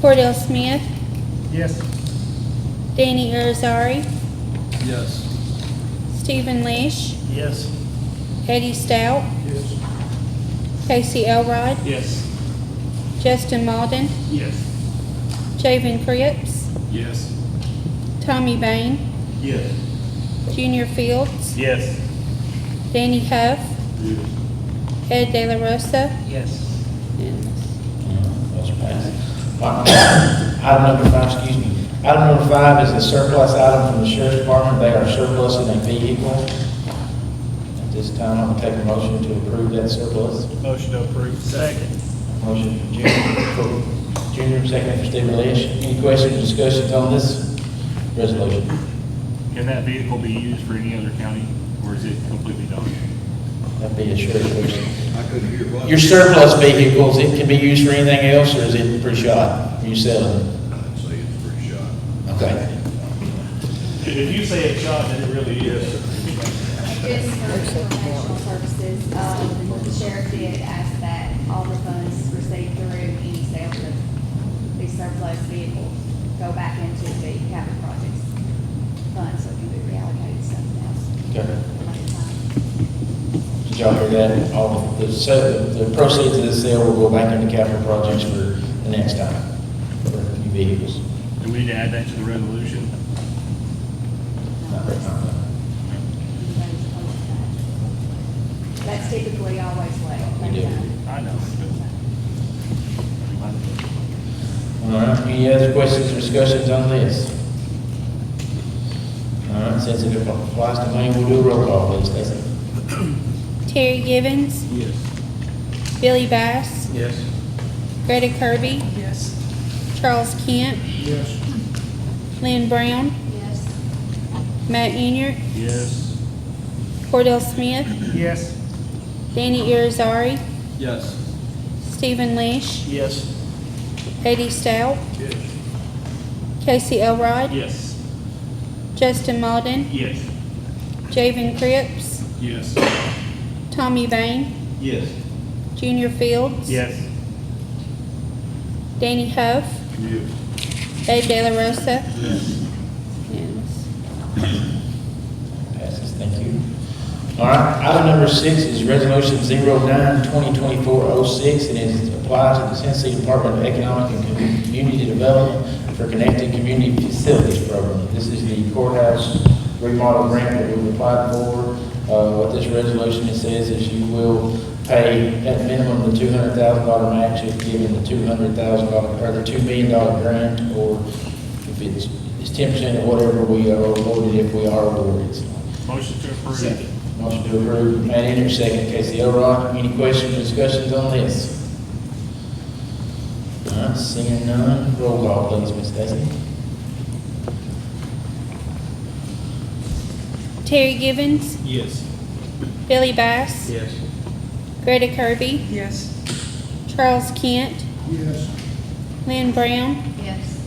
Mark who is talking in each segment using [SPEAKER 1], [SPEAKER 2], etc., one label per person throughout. [SPEAKER 1] Cordell Smith,
[SPEAKER 2] Yes.
[SPEAKER 1] Danny Irizarry,
[SPEAKER 3] Yes.
[SPEAKER 1] Stephen Leish,
[SPEAKER 2] Yes.
[SPEAKER 1] Eddie Stout,
[SPEAKER 2] Yes.
[SPEAKER 1] Casey Elrod,
[SPEAKER 2] Yes.
[SPEAKER 1] Justin Malden,
[SPEAKER 2] Yes.
[SPEAKER 1] Javen Cripps,
[SPEAKER 3] Yes.
[SPEAKER 1] Tommy Bain,
[SPEAKER 2] Yes.
[SPEAKER 1] Junior Fields,
[SPEAKER 2] Yes.
[SPEAKER 1] Danny Huff,
[SPEAKER 3] Yes.
[SPEAKER 1] Ed De La Rosa,
[SPEAKER 2] Yes.
[SPEAKER 4] Those are passed. Item number five, excuse me. Item number five is a surplus item from the sheriff's department. They are surplus in a vehicle. At this time, I'm gonna take a motion to approve that surplus.
[SPEAKER 2] Motion to approve. Second.
[SPEAKER 4] Motion from Junior, for Junior, second for Stephen Leish. Any questions, discussions on this resolution?
[SPEAKER 5] Can that vehicle be used for any other county, or is it completely done?
[SPEAKER 4] That'd be a sheriff's question.
[SPEAKER 3] I couldn't hear what.
[SPEAKER 4] Your surplus vehicles, it can be used for anything else, or is it pre-shot? Are you selling it?
[SPEAKER 3] I'd say it's pretty shot.
[SPEAKER 4] Okay.
[SPEAKER 2] If you say it's shot, then it really is.
[SPEAKER 6] This is for professional services, um, the sheriff did ask that all the funds received through any sales of these surplus vehicles go back into the capital projects fund, so it can be reallocated to something else.
[SPEAKER 4] Okay.
[SPEAKER 6] Another time.
[SPEAKER 4] Did y'all hear that? All of the, so the proceeds of this sale will go back into capital projects for the next time, for new vehicles.
[SPEAKER 5] Do we need to add that to the resolution?
[SPEAKER 4] Not right now.
[SPEAKER 6] Everybody's close to that. That's typically always late.
[SPEAKER 4] We do.
[SPEAKER 5] I know.
[SPEAKER 4] All right, any other questions or discussions on this? All right, since it applies to me, we'll do a roll call, please, Stacy.
[SPEAKER 1] Terry Givens,
[SPEAKER 3] Yes.
[SPEAKER 1] Billy Bass,
[SPEAKER 3] Yes.
[SPEAKER 1] Greta Kirby,
[SPEAKER 2] Yes.
[SPEAKER 1] Charles Kent,
[SPEAKER 3] Yes.
[SPEAKER 1] Lynn Brown,
[SPEAKER 6] Yes.
[SPEAKER 1] Matt Inyard,
[SPEAKER 5] Yes.
[SPEAKER 1] Cordell Smith,
[SPEAKER 2] Yes.
[SPEAKER 1] Danny Irizarry,
[SPEAKER 3] Yes.
[SPEAKER 1] Stephen Leish,
[SPEAKER 2] Yes.
[SPEAKER 1] Eddie Stout,
[SPEAKER 3] Yes.
[SPEAKER 1] Casey Elrod,
[SPEAKER 2] Yes.
[SPEAKER 1] Justin Malden,
[SPEAKER 2] Yes.
[SPEAKER 1] Javen Cripps,
[SPEAKER 3] Yes.
[SPEAKER 1] Tommy Bain,
[SPEAKER 3] Yes.
[SPEAKER 1] Junior Fields,
[SPEAKER 2] Yes.
[SPEAKER 1] Danny Huff,
[SPEAKER 3] Yes.
[SPEAKER 1] Ed De La Rosa.
[SPEAKER 3] Yes.
[SPEAKER 1] Unanimous.
[SPEAKER 4] Passes, thank you. All right, item number six is resolution 09-2024-06, and it applies to the Tennessee Department of Economic and Community Development for Connected Community Facilities Program. This is the courthouse remodel grant that we've applied for. Uh, what this resolution says is you will pay at minimum the two hundred thousand dollar match if given the two hundred thousand dollar, or the two million dollar grant, or if it's, it's ten percent of whatever we are awarded, if we are awarded. So,
[SPEAKER 5] Motion to approve.
[SPEAKER 4] Motion to approve, Matt Inyard, second, Casey Elrod. Any questions or discussions on this? All right, seeing none, roll call please, Ms. Desi.
[SPEAKER 1] Terry Givens,
[SPEAKER 3] Yes.
[SPEAKER 1] Billy Bass,
[SPEAKER 3] Yes.
[SPEAKER 1] Greta Kirby,
[SPEAKER 2] Yes.
[SPEAKER 1] Charles Kent,
[SPEAKER 3] Yes.
[SPEAKER 1] Lynn Brown,
[SPEAKER 6] Yes.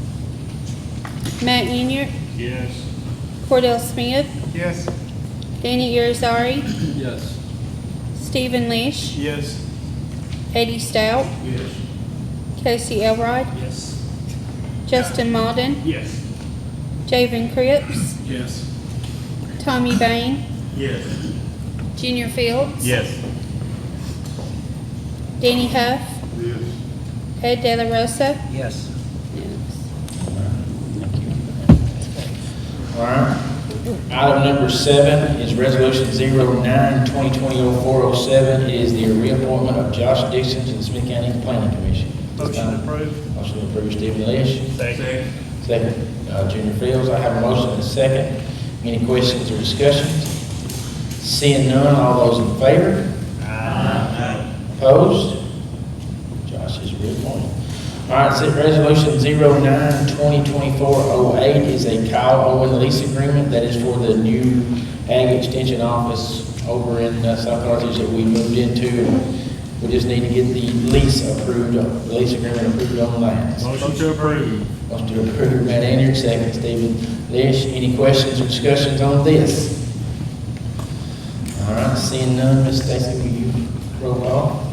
[SPEAKER 1] Matt Inyard,
[SPEAKER 5] Yes.
[SPEAKER 1] Cordell Smith,
[SPEAKER 2] Yes.
[SPEAKER 1] Danny Irizarry,
[SPEAKER 3] Yes.
[SPEAKER 1] Stephen Leish,
[SPEAKER 2] Yes.
[SPEAKER 1] Eddie Stout,
[SPEAKER 3] Yes.
[SPEAKER 1] Casey Elrod,
[SPEAKER 2] Yes.
[SPEAKER 1] Justin Malden,
[SPEAKER 2] Yes.
[SPEAKER 1] Javen Cripps,
[SPEAKER 3] Yes.
[SPEAKER 1] Tommy Bain,
[SPEAKER 2] Yes.
[SPEAKER 1] Junior Fields,
[SPEAKER 2] Yes.
[SPEAKER 1] Danny Huff,
[SPEAKER 3] Yes.
[SPEAKER 1] Ed De La Rosa.
[SPEAKER 2] Yes.
[SPEAKER 1] Unanimous.
[SPEAKER 4] All right. Item number seven is resolution 09-2020-0407. It is the reappointment of Josh Dixon to the Smith County Planning Commission.
[SPEAKER 2] Motion to approve.
[SPEAKER 4] Motion to approve, Stephen Leish.
[SPEAKER 2] Second.
[SPEAKER 4] Second, uh, Junior Fields, I have a motion and a second. Any questions or discussions? Seeing none, all those in favor? Opposed? Josh is reappointed. All right, so resolution 09-2024-08 is a Kyle Owen lease agreement that is for the new ag extension office over in uh, South Carthage that we moved into. We just need to get the lease approved, the lease agreement approved on that.
[SPEAKER 5] Motion to approve.
[SPEAKER 4] Motion to approve, Matt Inyard, second, Stephen Leish. Any questions or discussions on this? All right, seeing none, Ms. Stacy, will you roll call?